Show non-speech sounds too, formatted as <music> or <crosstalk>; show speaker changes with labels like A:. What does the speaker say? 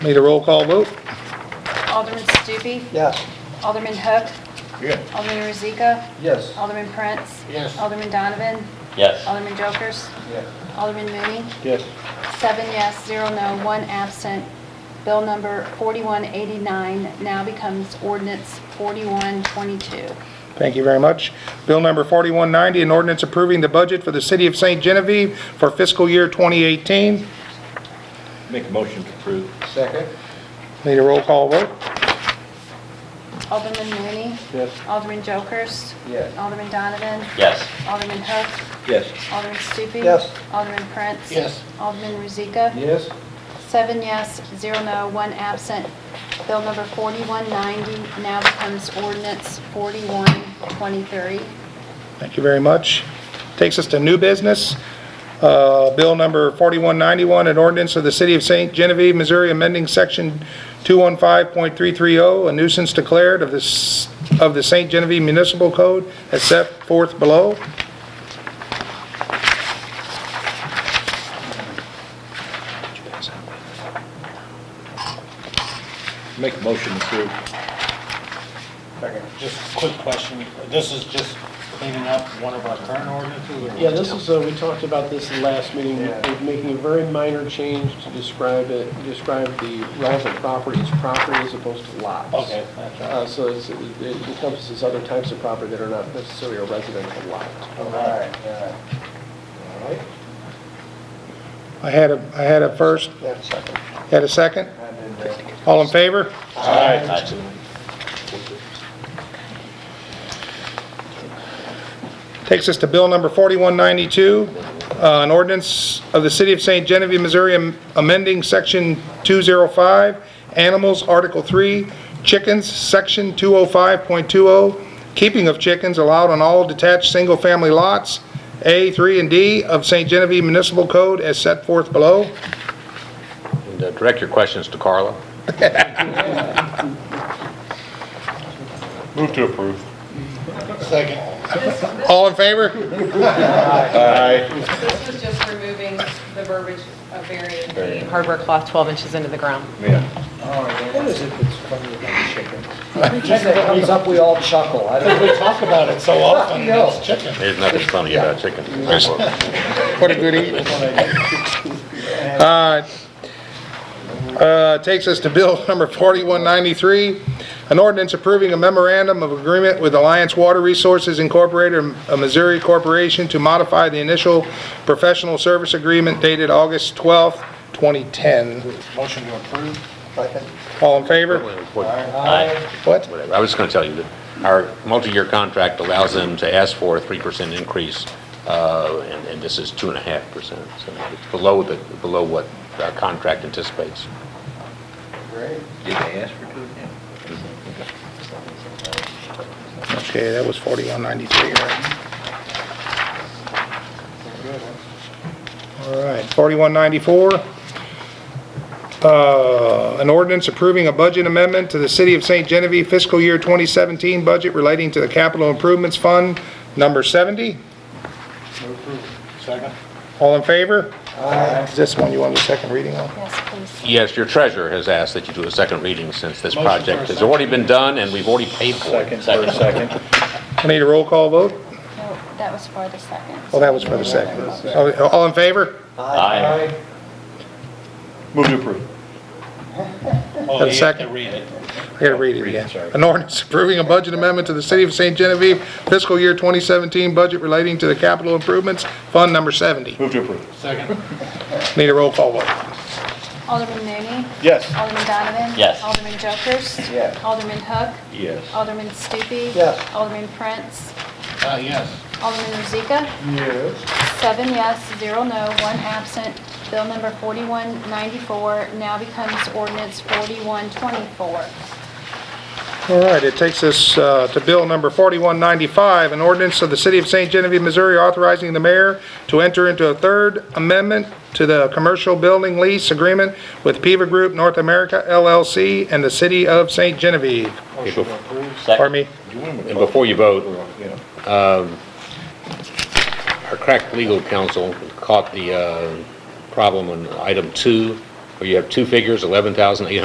A: Need a roll call vote?
B: Alderman Stupi.
C: Yes.
B: Alderman Hook.
C: Yes.
B: Alderman Rozika.
C: Yes.
B: Alderman Prince.
C: Yes.
B: Alderman Donovan.
D: Yes.
B: Alderman Jokers. Alderman Mooney.
C: Yes.
B: Seven yes, zero no, one absent. Bill number 4189 now becomes ordinance 4122.
A: Thank you very much. Bill number 4190, an ordinance approving the budget for the City of St. Genevieve for fiscal year 2018.
D: Make a motion to approve.
C: Second.
A: Need a roll call vote?
B: Alderman Mooney.
C: Yes.
B: Alderman Jokers.
C: Yes.
B: Alderman Donovan.
D: Yes.
B: Alderman Hook.
D: Yes.
B: Alderman Stupi.
C: Yes.
B: Alderman Prince.
C: Yes.
B: Alderman Rozika.
C: Yes.
B: Seven yes, zero no, one absent. Bill number 4190 now becomes ordinance 4123.
A: Thank you very much. Takes us to new business. Uh, Bill number 4191, an ordinance of the City of St. Genevieve, Missouri, amending section 215.330, oh, a nuisance declared of this, of the St. Genevieve Municipal Code as set forth below.
D: Make a motion to approve.
E: Just a quick question. This is just cleaning up one of our current ordinances? or-
F: Yeah, this is, uh, we talked about this in the last meeting,
C: Yeah.
F: We're making a very minor change to describe it, describe the relevant property as property as opposed to lots.
E: Okay, that's right.
F: Uh, So it's- it encompasses other types of property that are not necessarily a residential lot.
C: All right, all right. All right,
A: I had a, I had a first,
C: that's second.
A: had a second.
C: I did that.
A: All in favor? Takes us to bill number 4192, uh, an ordinance of the City of St. Genevieve, Missouri, am- amending Section 205, Animals, Article 3, Chickens, Section 205.20, oh, Keeping of Chickens Allowed on All Detached Single-Family Lots, A, 3, and D of St. Genevieve Municipal Code as set forth below.
G: And, uh, Direct your questions to Carla.
D: Move to approve.
C: Second.
H: This, this-
A: All in favor?
D: Aye.
H: this was just removing the verbiage of burying the hardware cloth 12 inches into the ground.
D: Yeah.
C: All right, what is it that's funny about chickens? Every time it comes up, we all chuckle. I don't,
E: We talk about it so often,
C: No.
E: it's chicken.
G: There's nothing funny about chickens.
A: What a good evening. Uh, uh, Takes us to Bill <laughs> number 4193, an ordinance approving a memorandum of agreement with Alliance Water Resources Incorporated, a Missouri corporation, to modify the initial professional service agreement dated August 12th, 2010.
E: Motion to approve?
C: second.
A: All in favor?
G: Whatever.
D: Aye.
A: What?
G: I was just going to tell you that our multi-year contract allows them to ask for a 3% increase, uh, and and this is 2.5%. So it's below the, below what our contract anticipates.
C: Great.
D: Did they ask for two?
A: Okay, that was 4193, right? All right, 4194. Uh, An ordinance approving a budget amendment to the City of St. Genevieve fiscal year 2017 budget relating to the Capital Improvements Fund, number 70.
E: Second?
A: All in favor?
C: Aye.
A: Is this one you want the second reading on?
B: Yes, please.
G: Yes, your treasurer has asked that you do a second reading since this
E: Motion for a
G: project has
E: second.
G: already been done and we've already paid for it.
D: Second, second.
A: I need a roll call vote?
B: No, that was for the second.
A: Oh, that was for the second. Oh, All in favor?
D: Aye. Move to approve.
E: Oh, you have to
A: second.
E: read it.
A: I gotta read it again.
D: sorry.
A: An ordinance approving a budget amendment to the City of St. Genevieve fiscal year 2017 budget relating to the Capital Improvements Fund, number 70.
D: Move to approve.
E: Second?
A: <laughs> Need a roll call vote?
B: Alderman Mooney.
D: Yes.
B: Alderman Donovan.
D: Yes.
B: Alderman Jokers.
C: Yes.
B: Alderman Hook.
D: Yes.
B: Alderman Stupi.
C: Yes.
B: Alderman Prince.
E: Uh, yes.
B: Alderman Rozika.
C: Yes.
B: Seven yes, zero no, one absent. Bill number 4194 now becomes ordinance 4124.
A: All right, it takes us uh, to Bill number 4195, an ordinance of the City of St. Genevieve, Missouri authorizing the mayor to enter into a third amendment to the commercial building lease agreement with Piva Group North America LLC and the City of St. Genevieve.
E: Motion to approve?
A: Pardon me?
G: And before you vote, um, our crack legal counsel caught the uh, problem on item two, where you have two figures, eleven thousand eight hundred.